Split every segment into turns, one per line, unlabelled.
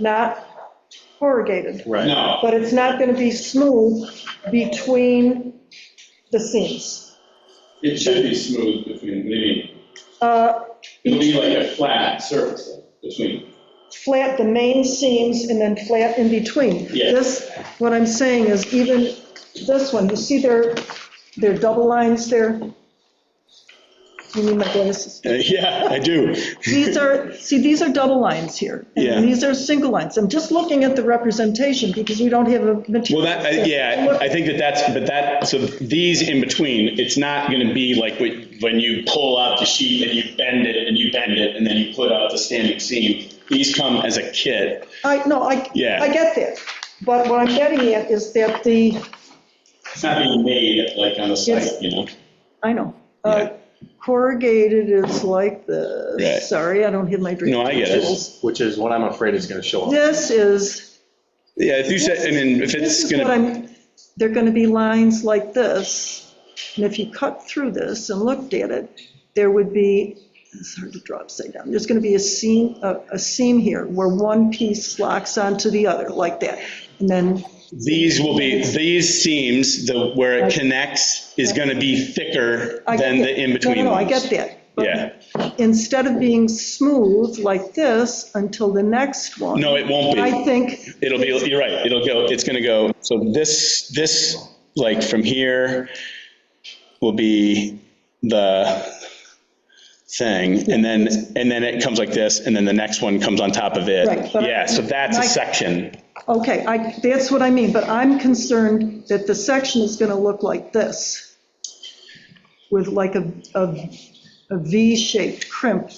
not corrugated.
Right.
No,
But it's not going to be smooth between the seams.
it should be smooth between, maybe,
Uh,
it'll be like a flat surface between.
Flat the main seams and then flat in between.
Yeah.
This, what I'm saying is even this one, you see their, their double lines there? You need my glasses.
Uh, Yeah, I do.
These are, see, these are double lines here.
Yeah.
And these are single lines. I'm just looking at the representation because we don't have a
Well,
material.
that, I- yeah, I think that that's, but that, so these in between, it's not going to be like when when you pull out the sheet and you bend it and you bend it and then you put out the standing seam. These come as a kit.
I, no, I,
Yeah.
I get that. But what I'm getting at is that the,
It's not being made like on the site, you know?
I know, uh, corrugated is like
Right.
this. Sorry, I don't have my drink.
No, I get it.
tools.
which is what I'm afraid is going to show up.
This is,
Yeah, if you said, I mean, if
this
it's
is what
going to,
I'm, they're going to be lines like this. And if you cut through this and looked at it, there would be, it's hard to draw upside down, there's going to be a seam, a a seam here where one piece locks onto the other like that. And then
these will be, these seams, the, where it connects is going to be thicker
I get
than
that.
the in-between ones.
No, no, no, I get that. But
Yeah.
Instead of being smooth like this until the next one.
No, it won't be.
I think,
It'll be, you're right, it'll go, it's gonna go, so this, this, like, from here will be the thing, and then, and then it comes like this, and then the next one comes on top of it.
Right, but-
Yeah, so that's a
My-
section.
okay, I, that's what I mean, but I'm concerned that the section is gonna look like this, with like a, a, a V-shaped crimp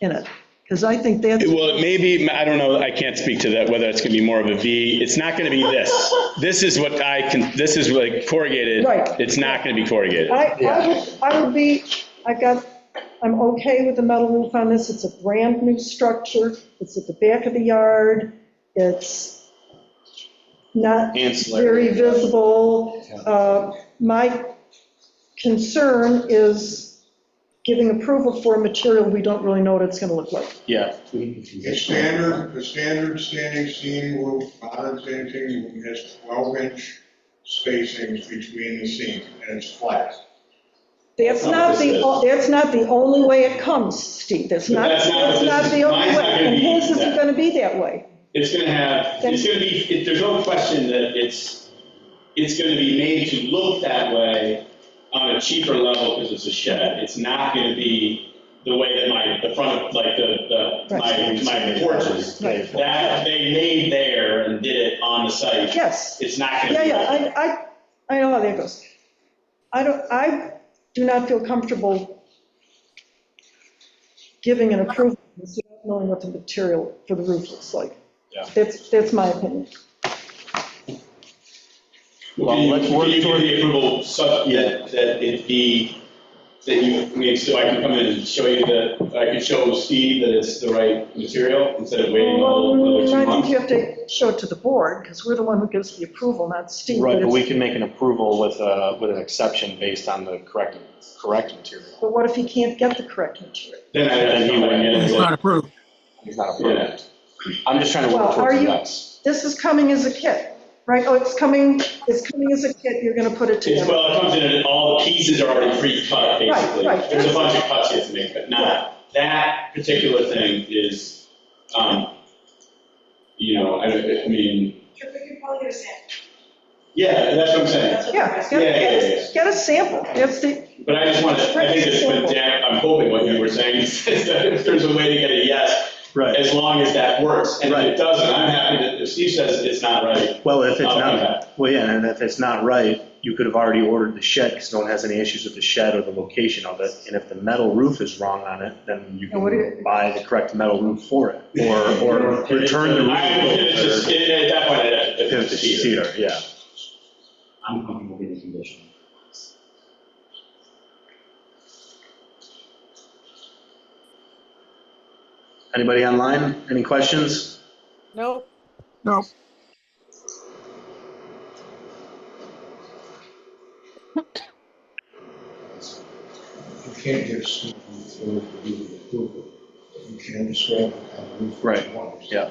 in it, because I think that's,
Well, it may be, I don't know, I can't speak to that, whether it's gonna be more of a V, it's not gonna be this. This is what I can, this is like corrugated.
Right.
It's not gonna be corrugated.
I, I would, I would be, I got, I'm okay with the metal roof on this, it's a brand new structure, it's at the back of the yard, it's not very
Ancillary.
visible. Uh, My concern is giving approval for a material we don't really know what it's gonna look like.
Yeah.
The standard, the standard standing seam will, modern standing seam has 12 inch spacings between the seams, and it's flat.
That's not the, that's not the only way it comes, Steve, that's not,
But that's not
that's
what
not
this
the
is.
only
Mine's
way,
not gonna
and
be
his isn't
that.
gonna be that way.
It's gonna have, it's gonna be, it- there's no question that it's, it's gonna be made to look that way on a cheaper level because it's a shed. It's not gonna be the way that my, the front of, like, the, the, my, my porches.
Right.
That, they made there and did it on the site.
Yes.
It's not gonna
Yeah,
be.
yeah, I, I, I know how that goes. I don't, I do not feel comfortable giving an approval without knowing what the material for the roof looks like.
Yeah.
That's, that's my opinion.
Well,
Can you,
let's work
can you give
toward-
the approval such that, that it be, that you, I mean, so I can come in and show you that, I can show Steve that it's the right material instead of waiting all another
Well,
two
I think
months?
you have to show it to the board, because we're the one who gives the approval, not Steve.
Right, but we
it's-
can make an approval with a, with an exception based on the correct, correct material.
But what if he can't get the correct material?
Then I'd have to come back in and
It's
say,
not approved.
He's not
Yeah.
approved. I'm just trying to
Well,
work
are
towards the
you-
next.
This is coming as a kit, right? Oh, it's coming, it's coming as a kit, you're gonna put it
It's,
together.
well, it comes in and all the pieces are already pre-cut,
Right,
basically.
right.
There's a bunch of cuts you have to make, but not, that particular thing is, um, you know, I, I mean,
Sure, we could probably get a sample.
yeah, that's what I'm saying.
That's what the
Yeah,
rest-
get,
Yeah, yeah, yeah, yeah.
get, get a sample, that's the,
But I just want to, I think that's what Dan, I'm hoping what you were saying is that if there's a way to get a yes,
Right,
as long as that works. And if it
Right.
doesn't, I'm happy that if Steve says it's not right,
well, if it's
I'll do
not,
that.
well, yeah, and if it's not right, you could have already ordered the shed, because no one has any issues with the shed or the location of it, and if the metal roof is wrong on it, then you
And what do you-
can buy the correct metal roof for it, or, or return the
I, it's
roof.
just, it- at that point, I'd have
or-
to-
If it's cedar, yeah.
I'm comfortable with the condition.
Anybody online, any questions?
No,
You can't get a smooth roof for the approval, but you can describe it how the roof
Right,
is.
yeah.